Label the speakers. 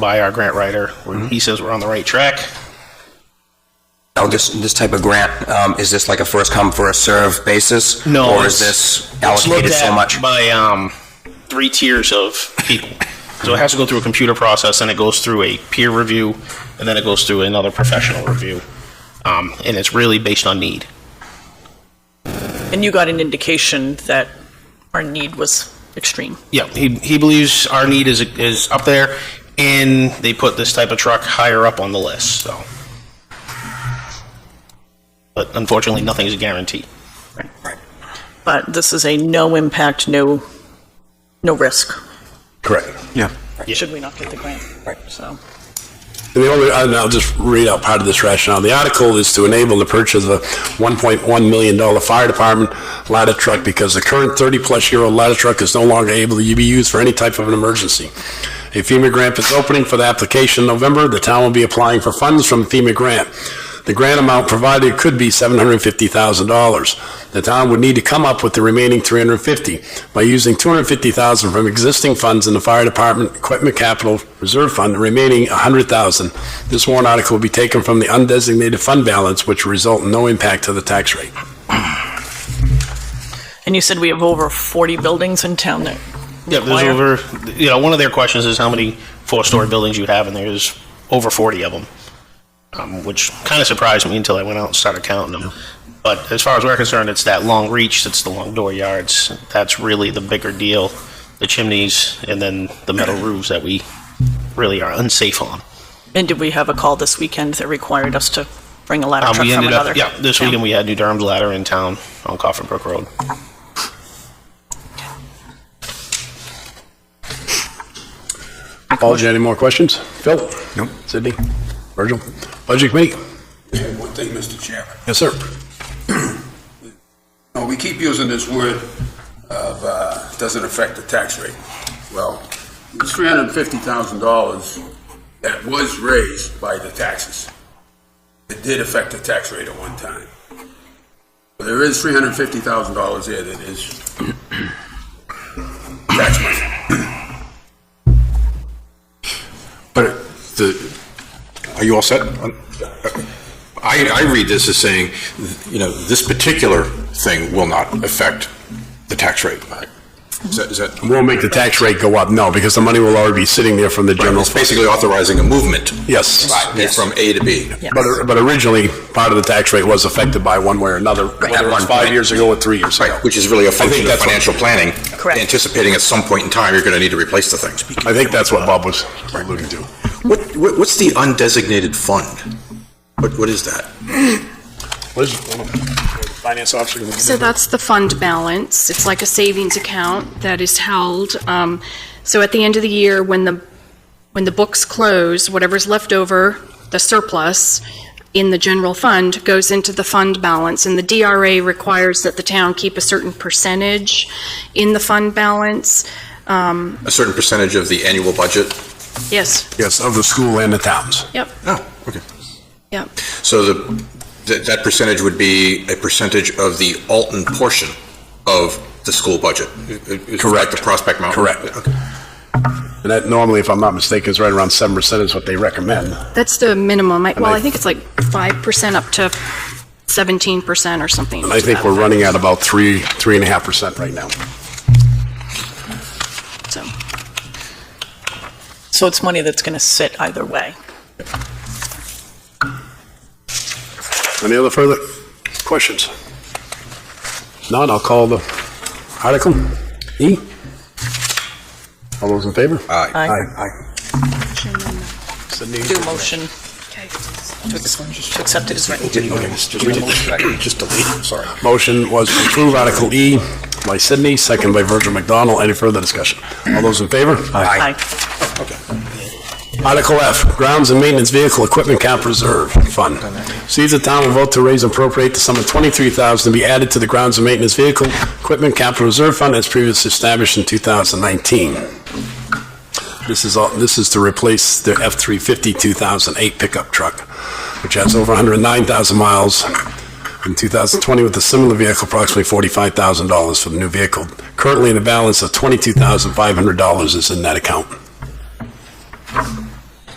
Speaker 1: by our grant writer. where He says we're on the right track.
Speaker 2: Now, Oh, this, this type of grant, um, is this like a first come, first serve basis?
Speaker 1: No,
Speaker 2: Or is
Speaker 1: it's-
Speaker 2: this
Speaker 1: It's looked
Speaker 2: allocated so
Speaker 1: at
Speaker 2: much?
Speaker 1: By um, three tiers of people. So it has to go through a computer process, and it goes through a peer review, and then it goes through another professional review. Um, and it's really based on need.
Speaker 3: And you got an indication that our need was extreme.
Speaker 1: Yeah, he, he believes our need is, is up there, and they put this type of truck higher up on the list, so. But unfortunately, nothing is a guarantee.
Speaker 3: But this is a no impact, no, no risk,
Speaker 4: Correct.
Speaker 5: Yeah.
Speaker 3: should we not get the grant. Right. So,
Speaker 4: And the only, and I'll just read out part of this rationale. The article is to enable the purchase of a $1.1 million fire department ladder truck because the current 30-plus year old ladder truck is no longer able to be used for any type of an emergency. A FEMA grant is opening for the application in November. The town will be applying for funds from FEMA grant. The grant amount provided could be $750,000. The town would need to come up with the remaining 350 by using 250,000 from existing funds in the fire department equipment capital reserve fund, the remaining 100,000. This warrant article will be taken from the undesignated fund balance, which will result in no impact to the tax rate.
Speaker 3: and you said we have over 40 buildings in town that
Speaker 1: Yeah, there's
Speaker 3: require-
Speaker 1: over, you know, one of their questions is how many four-story buildings you have, and there's over 40 of them, um, which kind of surprised me until I went out and started counting them. But as far as we're concerned, it's that long reach, it's the long door yards, that's really the bigger deal, the chimneys, and then the metal roofs that we really are unsafe on.
Speaker 3: And did we have a call this weekend that required us to bring a ladder
Speaker 1: Um,
Speaker 3: truck
Speaker 1: we
Speaker 3: from
Speaker 1: ended
Speaker 3: another?
Speaker 1: up, yeah, this
Speaker 3: town?
Speaker 1: weekend we had New Durham's Ladder in town on Coffin Brook Road.
Speaker 4: Paul, do you have any more questions? Phil?
Speaker 5: Nope.
Speaker 4: Sydney? Virgil? Budget committee?
Speaker 6: One thing, Mr. Chairman.
Speaker 4: Yes, sir.
Speaker 6: No, we keep using this word of, uh, doesn't affect the tax rate. Well, it's three hundred and fifty thousand dollars that was raised by the taxes. It did affect the tax rate at one time. But There is three hundred and fifty thousand dollars there that is tax money.
Speaker 7: But the, are you all set? I, I read this as saying, you know, this particular thing will not affect the tax rate. Is that, is that?
Speaker 4: Won't make the tax rate go up, no, because the money will already be sitting there from the
Speaker 7: Right,
Speaker 4: general.
Speaker 7: It's basically authorizing a movement
Speaker 4: Yes.
Speaker 7: from A to B.
Speaker 4: But, but originally, part of the tax rate was affected by one way or another, whether it was
Speaker 7: one
Speaker 4: five
Speaker 7: point.
Speaker 4: years ago or three years ago.
Speaker 7: Right, which is really a function of
Speaker 4: that's what-
Speaker 7: financial planning.
Speaker 3: Correct.
Speaker 7: Anticipating at some point in time, you're going to need to replace the things.
Speaker 4: I think that's what Bob was alluding to.
Speaker 7: What, what- what's the undesignated fund? What, what is that?
Speaker 4: What is, finance officer?
Speaker 8: So that's the fund balance. It's like a savings account that is held. Um, So at the end of the year, when the, when the books close, whatever's left over, the surplus in the general fund goes into the fund balance. And the DRA requires that the town keep a certain percentage in the fund balance. Um,
Speaker 7: A certain percentage of the annual budget?
Speaker 8: Yes,
Speaker 4: Yes, of the school and the towns.
Speaker 8: yep,
Speaker 7: Oh, okay.
Speaker 8: yep.
Speaker 7: So the, that, that percentage would be a percentage of the Alton portion of the school budget? Correct. Like the Prospect Mountain?
Speaker 4: Correct.
Speaker 7: Okay.
Speaker 4: And that normally, if I'm not mistaken, is right around seven percent is what they recommend.
Speaker 8: That's the minimum. I- Well,
Speaker 4: I-
Speaker 8: I think it's like 5% up to 17% or something.
Speaker 4: And I think we're running at about three, three and a half percent right now.
Speaker 8: So.
Speaker 3: So it's money that's going to sit either way.
Speaker 4: Any other further questions? Not, I'll call the article. E? All those in favor?
Speaker 3: Aye.
Speaker 4: Aye. Sydney?
Speaker 3: Do a motion to ex- to accept it as written.
Speaker 7: Just delete, sorry.
Speaker 4: Motion was to approve Article E by Sydney, second by Virgil McDonald. Any further discussion? All those in favor?
Speaker 3: Aye.
Speaker 4: Article F, Grounds and Maintenance Vehicle Equipment Cap Reserve Fund. See if the town will vote to raise and appropriate the sum of twenty-three thousand to be added to the Grounds and Maintenance Vehicle Equipment Capital Reserve Fund as previously established in two thousand nineteen. This is all, this is to replace the F-350 2008 pickup truck, which has over hundred and nine thousand miles in 2020 with a similar vehicle, approximately $45,000 for the new vehicle. Currently, the balance of $22,500 is in that account.